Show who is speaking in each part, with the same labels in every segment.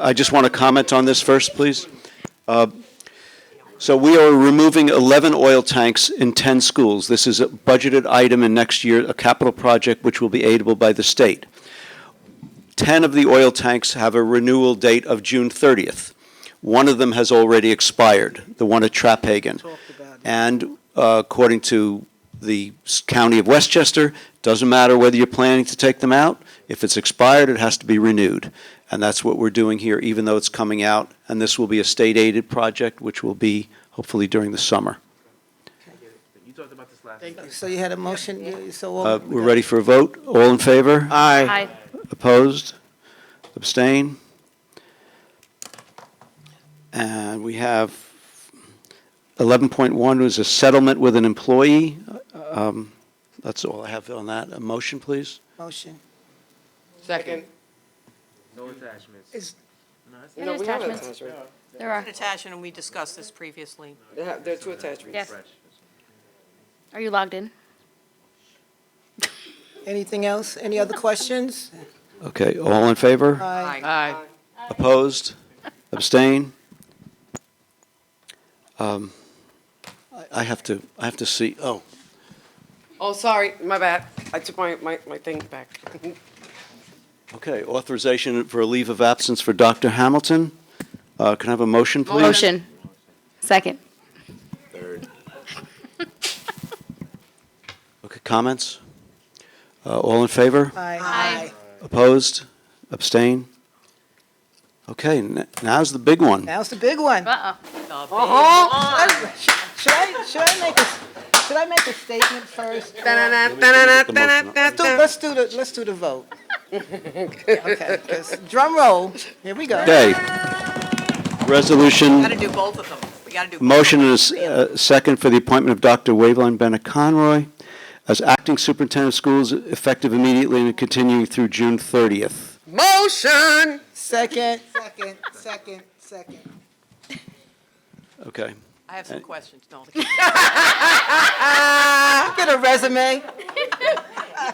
Speaker 1: I just want to comment on this first, please. Uh, So we are removing 11 oil tanks in 10 schools. This is a budgeted item in next year, a capital project which will be aidable by the state. 10 of the oil tanks have a renewal date of June 30th. One of them has already expired, the one at Trapphagen. And uh, according to the s- county of Westchester, doesn't matter whether you're planning to take them out, if it's expired, it has to be renewed. And that's what we're doing here, even though it's coming out, and this will be a state-aided project, which will be hopefully during the summer.
Speaker 2: You talked about this last.
Speaker 3: Thank you. So you had a motion, you- so. what
Speaker 1: Uh,
Speaker 3: we
Speaker 1: We're
Speaker 3: got?
Speaker 1: ready for a vote? All in favor?
Speaker 3: Aye.
Speaker 4: Aye.
Speaker 1: Opposed? Abstain? And we have 11.1 was a settlement with an employee. Um, That's all I have on that. A motion, please?
Speaker 3: Motion.
Speaker 5: Second.
Speaker 2: No attachments.
Speaker 5: Is-
Speaker 2: No, that's-
Speaker 4: No,
Speaker 5: No,
Speaker 4: There's
Speaker 5: we have an
Speaker 4: attachments.
Speaker 5: attachment.
Speaker 4: There are.
Speaker 6: Natasha, and we discussed this previously.
Speaker 5: They have, there are two attachments.
Speaker 4: Yes.
Speaker 2: Fresh.
Speaker 4: Are you logged in?
Speaker 3: Anything else? Any other questions?
Speaker 1: Okay, all in favor?
Speaker 3: Aye.
Speaker 5: Aye.
Speaker 1: Opposed? Abstain? Um, I I have to, I have to see, oh,
Speaker 5: Oh, sorry, my bad. I took my, my, my thing back.
Speaker 1: okay, authorization for a leave of absence for Dr. Hamilton. Uh, Can I have a motion, please?
Speaker 4: Motion. Second.
Speaker 1: Okay, comments? Uh, All in favor?
Speaker 4: Aye.
Speaker 1: Opposed? Abstain? Okay, n- now's the big one.
Speaker 3: Now's the big one. Uh-huh.
Speaker 4: Uh-oh.
Speaker 3: Should I, should I make a, should I make a statement first?
Speaker 5: Da-na-na,
Speaker 1: Let me
Speaker 5: da-na-na,
Speaker 1: make the motion.
Speaker 3: Do-
Speaker 5: da-na-na.
Speaker 3: Let's do the, let's do the vote. Okay, 'cause- drum roll, here we go.
Speaker 1: Okay.
Speaker 6: Got to
Speaker 1: Resolution,
Speaker 6: do both of them. We got to do. both.
Speaker 1: motion and a s- uh, second for the appointment of Dr. Waveline Bennett Conroy as acting superintendent of schools effective immediately and continuing through June 30th.
Speaker 5: Motion.
Speaker 3: Second. Second, second, second.
Speaker 1: Okay.
Speaker 6: I have some questions, no.
Speaker 3: Get a resume.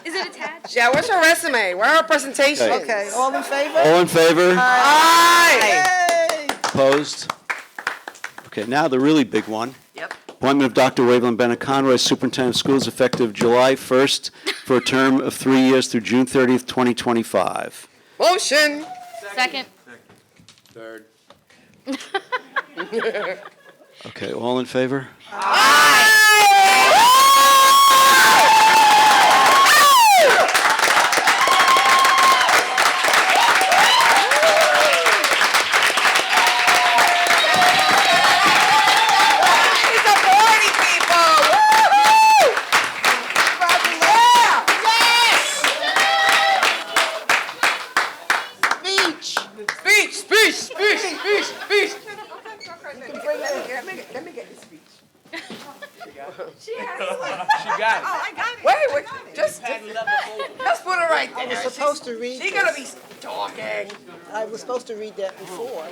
Speaker 4: Is it attached?
Speaker 5: Yeah, what's your resume? Where are our presentations?
Speaker 3: Okay, all in favor?
Speaker 1: All in favor?
Speaker 5: Aye.
Speaker 3: Yay!
Speaker 1: Opposed? Okay, now the really big one.
Speaker 6: Yep.
Speaker 1: Appointment of Dr. Waveland Bennett Conroy, Superintendent of Schools, effective July 1st for a term of three years through June 30th, 2025.
Speaker 5: Motion.
Speaker 4: Second.
Speaker 1: Okay, all in favor?
Speaker 5: He's supporting people. Woo-hoo. Yeah. Yes. Speech. Speech, speech, speech, speech, speech. Let me get this speech.
Speaker 2: She got
Speaker 5: Wait, wait, just, let's put it right there.
Speaker 3: I was supposed to read
Speaker 5: She gonna be
Speaker 3: this.
Speaker 5: talking.
Speaker 3: I was supposed to read that before.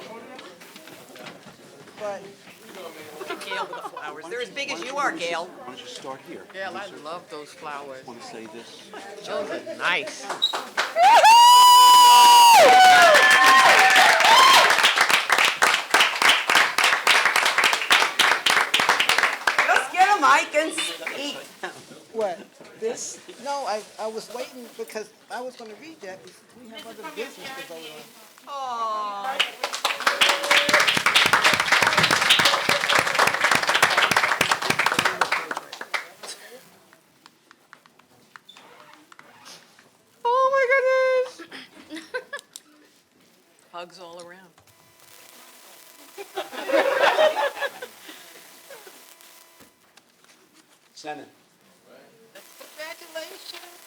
Speaker 3: But
Speaker 6: Gail with the flowers. They're as big as you are, Gail.
Speaker 1: Why don't you start here?
Speaker 5: Gail, I love those flowers.
Speaker 1: Want to say this?
Speaker 5: Those are nice.
Speaker 6: Just get a mic and speak.
Speaker 3: what, this? No, I, I was waiting because I was gonna read that. because We have other business to vote on.
Speaker 6: Aw.
Speaker 5: Oh, my goodness.
Speaker 6: Hugs all around.
Speaker 1: Senate.
Speaker 6: Congratulations.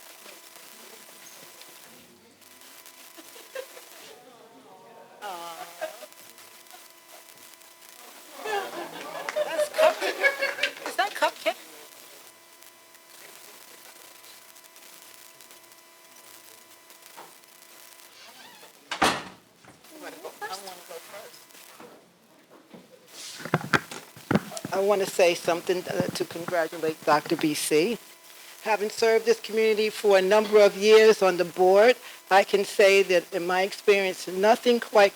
Speaker 3: Is that cupcake? I want to say something uh, to congratulate Dr. BC. Having served this community for a number of years on the board, I can say that in my experience, nothing quite